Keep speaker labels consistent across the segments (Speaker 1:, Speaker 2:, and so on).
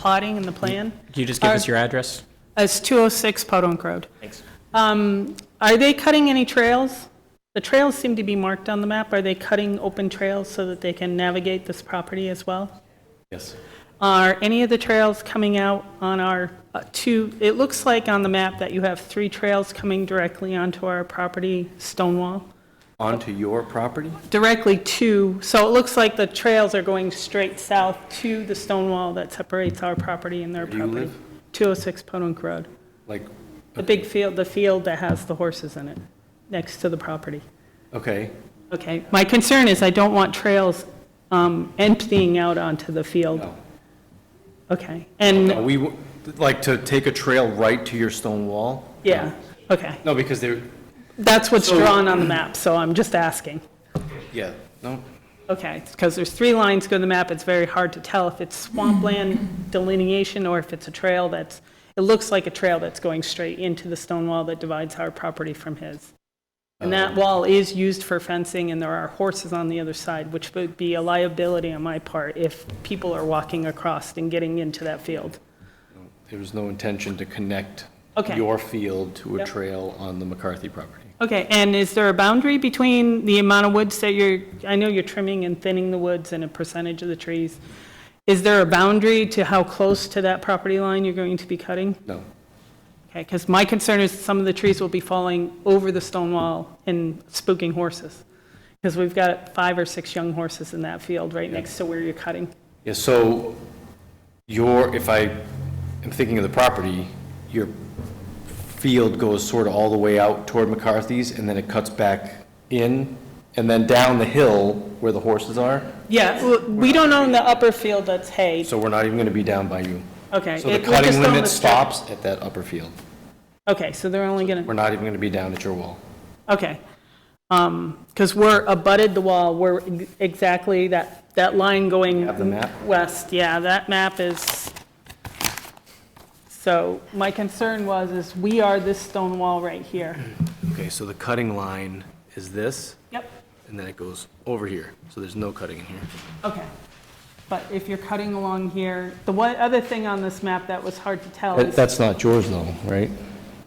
Speaker 1: plotting and the plan.
Speaker 2: Can you just give us
Speaker 1: Are-
Speaker 2: your address?
Speaker 1: It's 206 Podunk Road.
Speaker 2: Thanks.
Speaker 1: Um, Are they cutting any trails? The trails seem to be marked on the map. Are they cutting open trails so that they can navigate this property as well?
Speaker 3: Yes.
Speaker 1: Are any of the trails coming out on our uh, two, it looks like on the map that you have three trails coming directly onto our property, Stonewall,
Speaker 3: Onto your property?
Speaker 1: directly to, so it looks like the trails are going straight south to the Stonewall that separates our property and their
Speaker 3: Where do you
Speaker 1: property.
Speaker 3: live?
Speaker 1: 206 Podunk Road.
Speaker 3: Like,
Speaker 1: The big field, the field that has the horses in it, next to the property.
Speaker 3: okay,
Speaker 1: Okay, my concern is I don't want trails um, emptying out onto the field.
Speaker 3: no.
Speaker 1: Okay, and,
Speaker 3: Are we, w- like, to take a trail right to your stone wall?
Speaker 1: yeah, okay.
Speaker 3: No, because they're,
Speaker 1: That's what's
Speaker 3: So-
Speaker 1: drawn on the map, so I'm just asking.
Speaker 3: yeah, no,
Speaker 1: Okay, because there's three lines go to the map, it's very hard to tell if it's swampland delineation or if it's a trail that's, it looks like a trail that's going straight into the stone wall that divides our property from his. And that wall is used for fencing, and there are horses on the other side, which would be a liability on my part if people are walking across and getting into that field.
Speaker 3: there was no intention to connect
Speaker 1: Okay.
Speaker 3: your field to a
Speaker 1: Yep.
Speaker 3: trail on the McCarthy property.
Speaker 1: Okay, and is there a boundary between the amount of woods that you're, I know you're trimming and thinning the woods and a percentage of the trees. Is there a boundary to how close to that property line you're going to be cutting?
Speaker 3: No,
Speaker 1: Okay, because my concern is some of the trees will be falling over the stone wall and spooking horses. Because we've got five or six young horses in that field right next to where you're cutting.
Speaker 3: yeah, so your, if I am thinking of the property, your field goes sort of all the way out toward McCarthy's, and then it cuts back in, and then down the hill where the horses are,
Speaker 1: Yeah, well, we don't own the upper field that's hay.
Speaker 3: so we're not even gonna be down by you.
Speaker 1: Okay.
Speaker 3: So the
Speaker 1: it- we just
Speaker 3: cutting
Speaker 1: own
Speaker 3: limit
Speaker 1: the strip.
Speaker 3: stops at that upper field.
Speaker 1: Okay, so they're only going to.
Speaker 3: We're not even going to be down at your wall.
Speaker 1: Okay. Because we're abutted the wall, we're ex- exactly that, that line going.
Speaker 3: have the map?
Speaker 1: West, yeah, that map is, so my concern was, is we are this stone wall right here.
Speaker 3: Mm-hmm. Okay, so the cutting line is this,
Speaker 1: Yep,
Speaker 3: and then it goes over here, so there's no cutting in here.
Speaker 1: okay. But if you're cutting along here, the one other thing on this map that was hard to tell is,
Speaker 3: That's not yours though, right?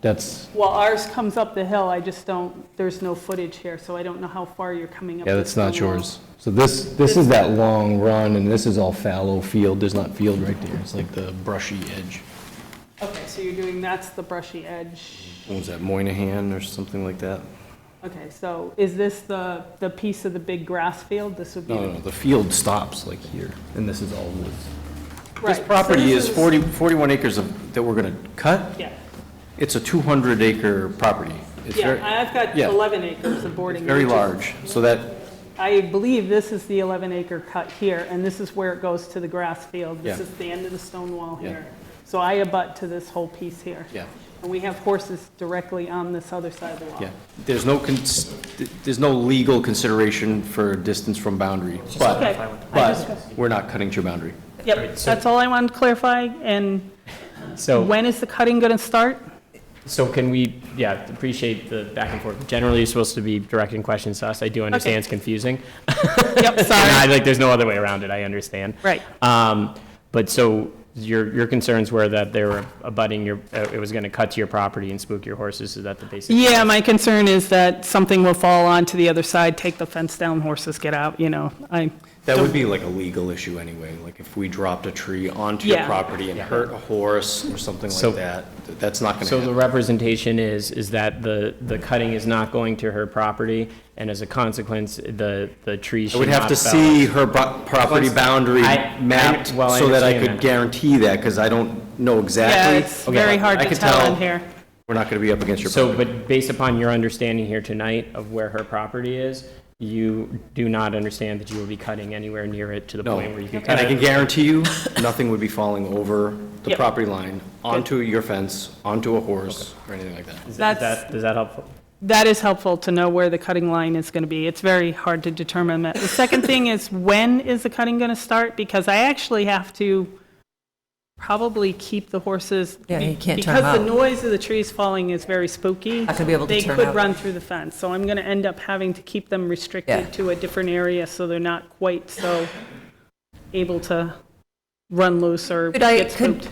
Speaker 3: That's,
Speaker 1: well, ours comes up the hill, I just don't, there's no footage here, so I don't know how far you're coming up.
Speaker 3: yeah,
Speaker 1: the
Speaker 3: that's not
Speaker 1: stone wall.
Speaker 3: yours. So this, this is that long run, and this is all fallow field, there's not field right there, it's like the brushy edge.
Speaker 1: Okay, so you're doing, that's the brushy edge.
Speaker 3: What was that, Moynihan or something like that?
Speaker 1: Okay, so is this the, the piece of the big grass field? This would be.
Speaker 3: No, no, no, the field stops like here, and this is all woods.
Speaker 1: Right,
Speaker 3: This
Speaker 1: so
Speaker 3: property
Speaker 1: this
Speaker 3: is 40, 41 acres of, that we're going to cut.
Speaker 1: Yeah,
Speaker 3: It's a 200 acre property. It's very-
Speaker 1: yeah, I've got
Speaker 3: yeah.
Speaker 1: 11 acres of boarding.
Speaker 3: Very
Speaker 1: which is-
Speaker 3: large, so that,
Speaker 1: I believe this is the 11 acre cut here, and this is where it goes to the grass field. This
Speaker 3: Yeah.
Speaker 1: is the end of the stone wall
Speaker 3: Yeah.
Speaker 1: here. So I abut to this whole piece here.
Speaker 3: Yeah.
Speaker 1: And we have horses directly on this other side of the wall.
Speaker 3: yeah, there's no, cons- there's no legal consideration for distance from boundary,
Speaker 1: Okay,
Speaker 3: but,
Speaker 1: I
Speaker 3: but
Speaker 1: just-
Speaker 3: we're not cutting to your boundary.
Speaker 1: Yep, that's all I wanted to clarify, and
Speaker 2: So,
Speaker 1: when is the cutting going to start?
Speaker 2: so can we, yeah, appreciate the back and forth. Generally, you're supposed to be directing questions to us. I do understand it's confusing.
Speaker 1: Yep,
Speaker 2: And I,
Speaker 1: sorry.
Speaker 2: like, there's no other way around it, I understand.
Speaker 1: Right.
Speaker 2: Um, but so your, your concerns were that they were abutting your, uh, it was gonna cut to your property and spook your horses, is that the basic?
Speaker 1: Yeah, my concern is that something will fall onto the other side, take the fence down, horses get out, you know, I,
Speaker 3: That would be like a legal issue anyway, like if we dropped a tree onto your
Speaker 1: Yeah.
Speaker 3: property and hurt a horse or something
Speaker 2: So-
Speaker 3: like that, th- that's not
Speaker 2: So
Speaker 3: going
Speaker 2: the
Speaker 3: to
Speaker 2: representation is, is that the, the cutting is not going to her property, and as a consequence, the, the tree
Speaker 3: I
Speaker 2: should
Speaker 3: would
Speaker 2: not
Speaker 3: have to
Speaker 2: fell.
Speaker 3: see her bo- property boundary
Speaker 2: I- I-
Speaker 3: mapped
Speaker 2: well, I
Speaker 3: so that I
Speaker 2: understand
Speaker 3: could
Speaker 2: that.
Speaker 3: guarantee that, because I don't know
Speaker 1: yeah,
Speaker 3: exactly.
Speaker 1: it's very hard
Speaker 3: I
Speaker 1: to
Speaker 3: could
Speaker 1: tell in here.
Speaker 3: We're not going to be up against your
Speaker 2: So,
Speaker 3: property.
Speaker 2: but based upon your understanding here tonight of where her property is, you do not understand that you will be cutting anywhere near it to the
Speaker 3: No,
Speaker 2: point where you can
Speaker 3: and
Speaker 2: cut
Speaker 3: I can
Speaker 2: it?
Speaker 3: guarantee you, nothing would be falling over the
Speaker 1: Yep.
Speaker 3: property line, onto your fence, onto a horse, or anything like that.
Speaker 2: Is that- is
Speaker 1: That's-
Speaker 2: that- Is that helpful?
Speaker 1: That is helpful to know where the cutting line is going to be. It's very hard to determine that. The second thing is, when is the cutting going to start? Because I actually have to probably keep the horses.
Speaker 4: Yeah, you can't turn 'em
Speaker 1: Because the
Speaker 4: out.
Speaker 1: noise of the trees falling is very spooky.
Speaker 4: Not gonna be able to turn
Speaker 1: They could
Speaker 4: out.
Speaker 1: run through the fence, so I'm going to end up having to keep them
Speaker 4: Yeah.
Speaker 1: restricted to a different area, so they're not quite so able to run loose or
Speaker 4: Could I-
Speaker 1: get
Speaker 4: could-
Speaker 1: spooked.